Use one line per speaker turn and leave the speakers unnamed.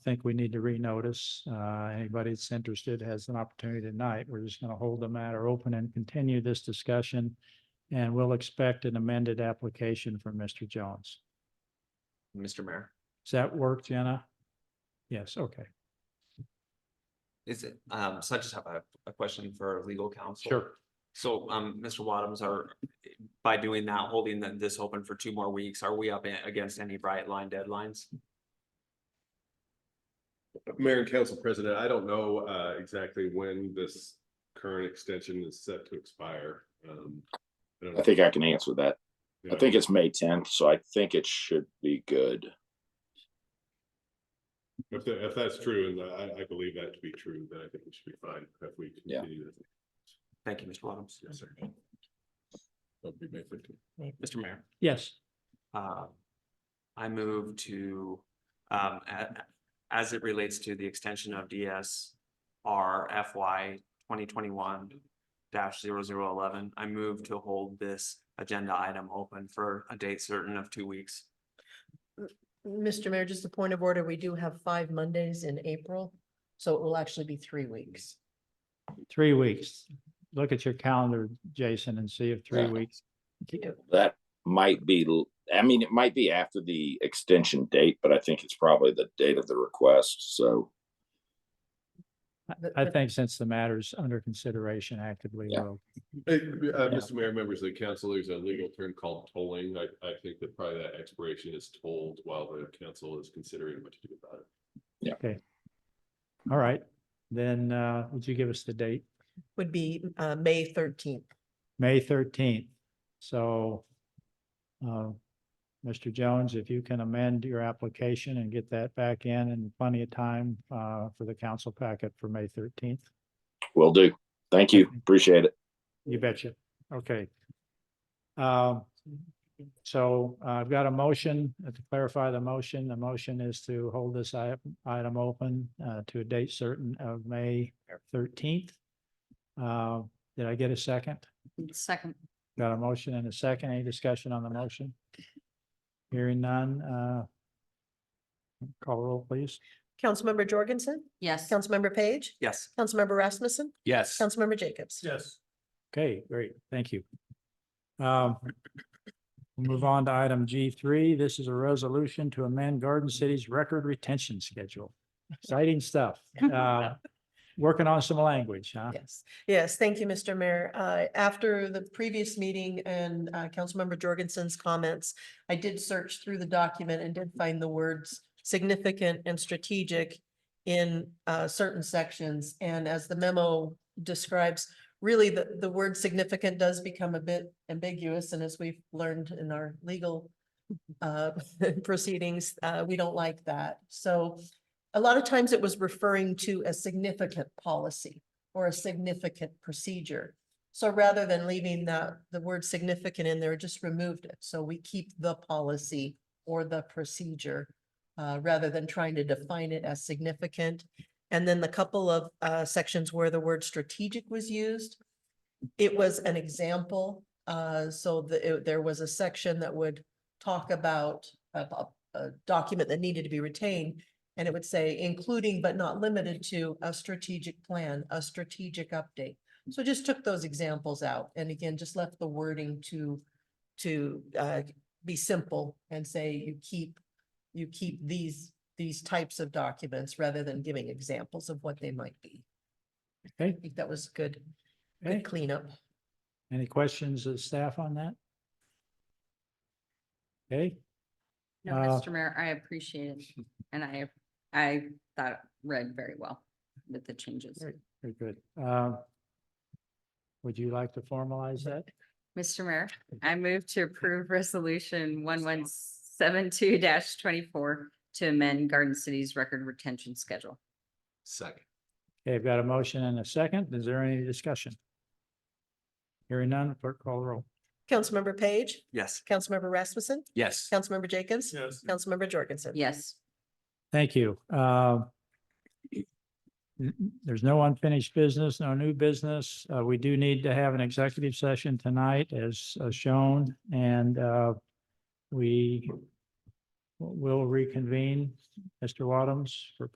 think we need to renotice. Uh, anybody that's interested has an opportunity tonight. We're just gonna hold the matter open and continue this discussion. And we'll expect an amended application from Mr. Jones.
Mr. Mayor.
Does that work, Jenna? Yes, okay.
Is it, um, so I just have a, a question for legal counsel.
Sure.
So, um, Mr. Wadums, are, by doing that, holding th- this open for two more weeks, are we up a- against any bright line deadlines?
Mayor and Council President, I don't know uh exactly when this current extension is set to expire. Um, I don't
I
know.
think I can answer that.
Yeah.
I think it's May tenth, so I think it should be good.
If that, if that's true, and I I believe that to be true, then I think it should be fine if we
Yeah.
continue this.
Thank you, Mr. Wadums.
Yes, sir. That'd be May 15th.
Mr. Mayor.
Yes,
Uh, I move to, um, a- as it relates to the extension of DS R FY twenty twenty-one 11 I move to hold this agenda item open for a date certain of two weeks.
Mr. Mayor, just a point of order, we do have five Mondays in April, so it will actually be three weeks.
three weeks. Look at your calendar, Jason, and see if three
Yeah.
weeks.
That might be, l- I mean, it might be after the extension date, but I think it's probably the date of the request, so.
I-
But-
I
but-
think since the matter's under consideration actively,
Yeah.
we'll
Hey, uh, Mr. Mayor, members of the council, there's a legal term called tolling. I I think that probably that expiration is tolled while the council is considering what to do about it.
All right, then, uh, would you give us the date?
Would be uh May thirteenth.
May thirteenth. So, uh, Mr. Jones, if you can amend your application and get that back in in plenty of time, uh, for the council packet for May thirteenth.
Will do. Thank you. Appreciate it.
You betcha. Okay. Um, so uh, I've got a motion uh, to clarify the motion. The motion is to hold this i- item open uh, to a date certain of May thirteenth. Uh, did I get a second?
Second.
Got a motion and a second. Any discussion on the motion? Hearing none, uh. Call roll, please.
Councilmember Jorgensen,
Yes.
Councilmember Page,
Yes.
Councilmember Rasmussen,
Yes.
Councilmember Jacobs.
Yes. Okay, great, thank you. Um, we'll Move on to item G three. This is a resolution to amend Garden City's record retention schedule. Exciting stuff. Uh, Working on some language, huh?
Yes, yes, thank you, Mr. Mayor. Uh, after the previous meeting and, uh, Councilmember Jorgensen's comments, I did search through the document and did find the words significant and strategic in, uh, certain sections. And as the memo describes, really the, the word significant does become a bit ambiguous. And as we've learned in our legal, uh, proceedings, uh, we don't like that. So a lot of times it was referring to a significant policy or a significant procedure. So rather than leaving the, the word significant in there, just removed it. So we keep the policy or the procedure uh, rather than trying to define it as significant. And then the couple of uh, sections where the word strategic was used, it was an example. Uh, so the, it- there was a section that would talk about a, a- a document that needed to be retained. And it would say, including but not limited to a strategic plan, a strategic update. So just took those examples out and again, just left the wording to, to, uh, be simple and say you keep, you keep these, these types of documents rather than giving examples of what they might be.
Okay.
I think that was good,
Okay.
good cleanup.
Any questions of staff on that? Okay,
No,
Uh,
Mr. Mayor, I appreciate it. And I, I thought it read very well with the changes.
Great. very good. Um, Would you like to formalize that?
Mr. Mayor, I move to approve resolution one one seven two twenty-four to amend Garden City's record retention schedule.
Second.
Okay, I've got a motion and a second. Is there any discussion? Hearing none, clerk call the roll.
Councilmember Page,
Yes.
Councilmember Rasmussen,
Yes.
Councilmember Jacobs,
Yes.
Councilmember Jorgensen.
Yes.
Thank you. Um, n- n- There's no unfinished business, no new business. Uh, we do need to have an executive session tonight as uh, shown and, uh, we will reconvene, Mr. Wadums, for